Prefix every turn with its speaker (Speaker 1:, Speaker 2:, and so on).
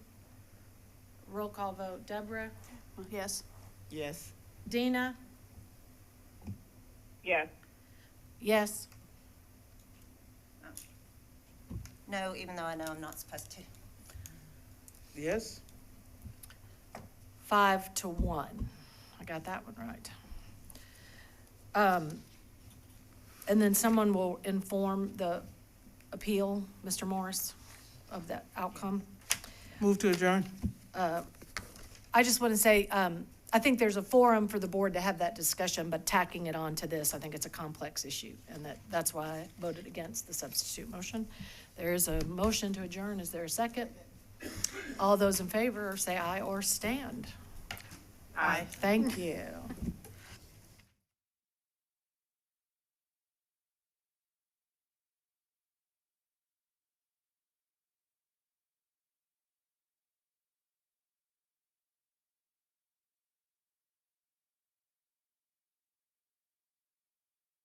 Speaker 1: Roll call vote, Deborah,
Speaker 2: Yes.
Speaker 3: Yes.
Speaker 1: Dina,
Speaker 4: yes,
Speaker 1: yes,
Speaker 5: No, even though I know I'm not supposed to.
Speaker 3: Yes?
Speaker 1: five to one. I got that one right. Um, and then someone will inform the appeal, Mr. Morris, of the outcome.
Speaker 3: Move to adjourn?
Speaker 1: uh, I just want to say, um, I think there's a forum for the board to have that discussion, but tacking it on to this, I think it's a complex issue. And that, that's why I voted against the substitute motion. There is a motion to adjourn. Is there a second? All those in favor, say aye or stand.
Speaker 5: Aye.
Speaker 1: Thank you.